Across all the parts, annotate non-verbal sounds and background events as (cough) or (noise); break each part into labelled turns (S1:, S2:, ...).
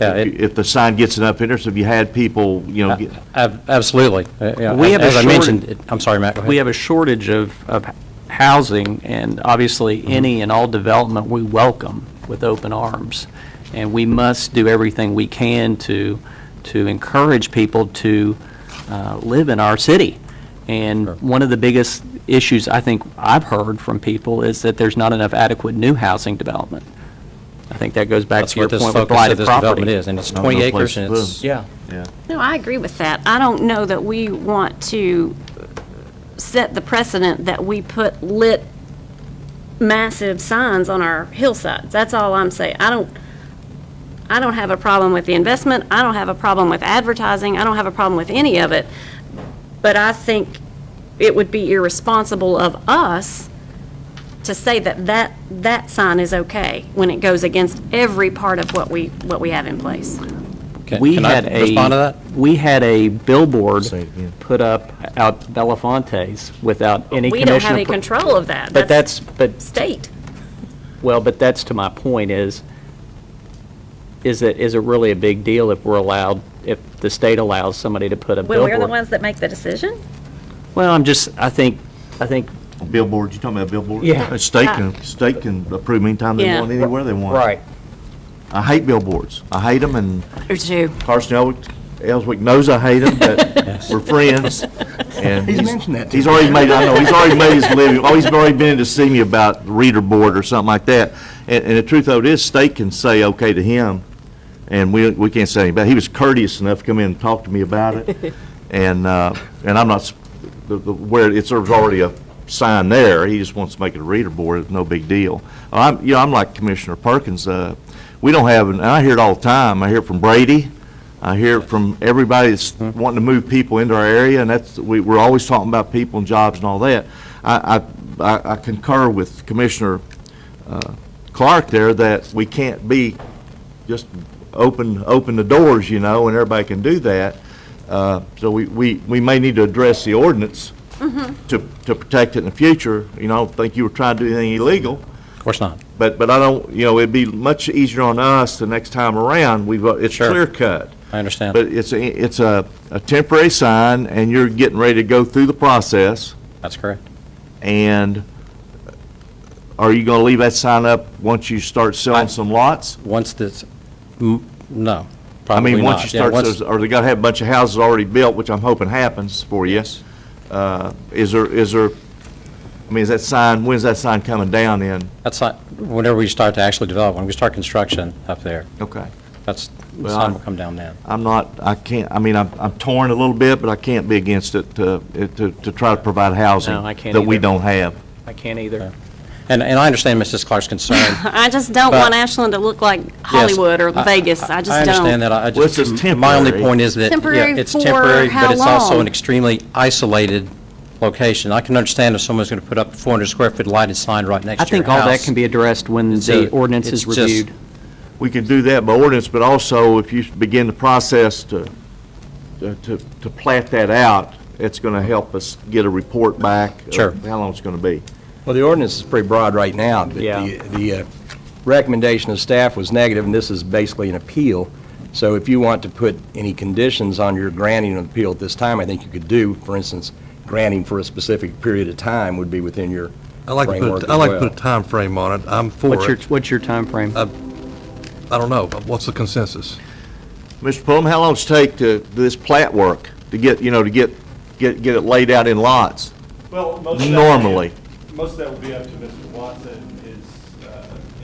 S1: Yeah, it-
S2: if the sign gets enough interest, if you had people, you know, get-
S1: Uh, ab- absolutely. Uh, yeah,
S3: We have a
S1: As I
S3: shortage-
S1: mentioned, it- I'm sorry, Matt, go ahead.
S3: We have a shortage of, of housing, and obviously,
S1: Mm-hmm.
S3: any and all development we welcome with open arms. And we must do everything we can to, to encourage people to uh, live in our city. And one of the biggest issues I think I've heard from people is that there's not enough adequate new housing development. I think that goes back
S1: That's
S3: to your
S1: what this
S3: point
S1: focus
S3: with
S1: of
S3: blighted
S1: this
S3: property.
S1: development is, and it's
S2: No, no
S1: 20
S2: place
S1: acres,
S2: to
S1: and it's,
S2: put 'em.
S1: yeah,
S2: yeah.
S4: No, I agree with that. I don't know that we want to set the precedent that we put lit massive signs on our hillsides. That's all I'm saying. I don't, I don't have a problem with the investment. I don't have a problem with advertising. I don't have a problem with any of it. But I think it would be irresponsible of us to say that that, that sign is okay when it goes against every part of what we, what we have in place.
S1: can
S3: We
S1: can I
S3: had a.
S1: respond to that?
S3: We had a billboard
S2: Say it again.
S3: put up out Belafonte's without any
S4: We
S3: commission.
S4: don't have any
S3: appro-
S4: control of that.
S3: But that's, but,
S4: state.
S3: well, but that's to my point is, is it, is it really a big deal if we're allowed, if the state allows somebody to put a
S4: When we're the
S3: billboard?
S4: ones that make the decision?
S3: Well, I'm just, I think, I think.
S2: Billboards, you talking about billboards?
S3: Yeah.
S2: A State can, state can approve them anytime they
S4: Yeah.
S2: want, anywhere they want. I hate billboards. I hate them, and
S4: Or two.
S2: Carson Elwick- Ellswick knows I hate them,
S1: (laughs)
S2: but we're friends. and He's
S5: mentioned that to
S2: He's already made, I know, he's already made his living, oh, he's already been in to see me about reader board or something like that. And, and the truth of it is, state can say okay to him, and we, we can't say anything about it. He was courteous enough to come in and talk to me about it. And, uh, and I'm not, s- the- the- where it's, there's already a sign there, he just wants to make it a reader board, it's no big deal. I'm, you know, I'm like Commissioner Perkins, uh, we don't have, and I hear it all the time, I hear it from Brady, I hear it from everybody that's wanting to move people into our area, and that's, we, we're always talking about people and jobs and all that. I, I- I, I concur with Commissioner uh, Clark there that we can't be just open, open the doors, you know, and everybody can do that. Uh, So we, we, we may need to address the ordinance to, to protect it in the future. You know, I don't think you were trying to do anything illegal,
S1: Of course not.
S2: but, but I don't, you know, it'd be much easier on us the next time around. We've, uh, it's
S1: Sure.
S2: clear cut.
S1: I understand.
S2: But it's, a- it's a, a temporary sign, and you're getting ready to go through the process,
S1: That's correct.
S2: and are you gonna leave that sign up once you start selling some lots?
S1: Once this, m- no,
S2: I
S1: probably not.
S2: mean, once you
S1: Yeah,
S2: start, those- or they gotta have a bunch of houses already built, which I'm hoping happens for you. Uh, Is there, is there, I mean, is that sign, when's that sign coming down then?
S1: That's not, whenever we start to actually develop, when we start construction up there,
S2: Okay.
S1: that's, the
S2: Well,
S1: sun
S2: I-
S1: will come down then.
S2: I'm not, I can't, I mean, I'm I'm torn a little bit, but I can't be against it to, it- to to try to provide housing
S3: No, I can't
S2: that we
S3: either.
S2: don't have.
S3: I can't either.
S1: And, and I understand Mrs. Clark's concern.
S4: I just don't
S1: But-
S4: want Ashland to look like
S1: Yes,
S4: Hollywood or
S1: I-
S4: Vegas. I just
S1: I understand
S4: don't.
S1: that, I I
S2: Well, it's
S1: just.
S2: just
S1: My only
S2: temporary.
S1: point is that, yeah,
S4: Temporary
S1: it's
S4: for
S1: temporary, but
S4: how
S1: it's also
S4: long?
S1: an extremely isolated location. I can understand if someone's going to put up a 400 square foot lighted sign right next
S3: I
S1: to your
S3: think
S1: house.
S3: all that can be addressed when
S1: It's
S3: the
S1: a-
S3: ordinance
S1: it's
S3: is
S1: just-
S3: reviewed.
S2: We can do that by ordinance, but also if you begin the process to, to, to plat that out, it's gonna help us get a report back. of
S1: Sure.
S2: How long it's gonna be.
S5: Well, the ordinance is pretty broad right now, but
S3: Yeah.
S5: the, the uh, recommendation of staff was negative, and this is basically an appeal. So if you want to put any conditions on your granting of appeal at this time, I think you could do, for instance, granting for a specific period of time would be within your
S6: I like to
S5: framework
S6: put,
S5: as
S6: a- I like to
S5: well.
S6: put a time frame on it. I'm
S3: What's
S6: for
S3: your,
S6: it.
S3: what's your timeframe?
S6: I don't know. What's the consensus?
S2: Mr. Pullum, how long does it take to, this plat work, to get, you know, to get, get, get it laid out in lots?
S7: Well, most of that.
S2: Normally.
S7: Most of that will be up to Mr. Watson and his uh,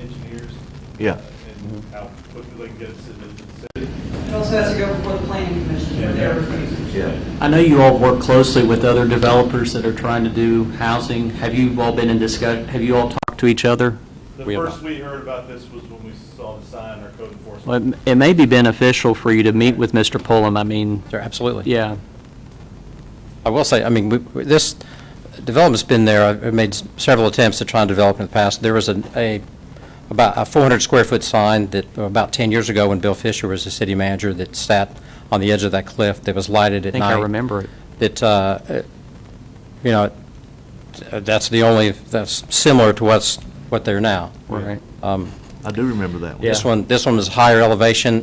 S7: engineers.
S2: Yeah.
S7: uh, And
S1: Mm-hmm.
S7: how quickly they can get it submitted to the city.
S8: It also has to go before the planning commission for their review.
S3: I know you all work closely with other developers that are trying to do housing. Have you all been in discuss, have you all talked to each other?
S7: The
S1: We have
S7: first we heard about this was when we saw the sign, our code enforcement.
S3: Well, it- It may be beneficial for you to meet with Mr. Pullum. I mean,
S1: Sure, Absolutely.
S3: yeah.
S1: I will say, I mean, we- we- this development's been there, I've I've made s- several attempts to try and develop in the past. There was an- a, about a 400-square-foot sign that, about 10 years ago, when Bill Fisher was the city manager, that sat on the edge of that cliff, that was lighted
S3: I
S1: at night.
S3: think I remember it.
S1: That, uh, uh, you know, uh, that's the only, that's similar to what's, what they're now. Um,
S3: Right.
S2: I do remember that one.
S1: This one, this one was higher elevation,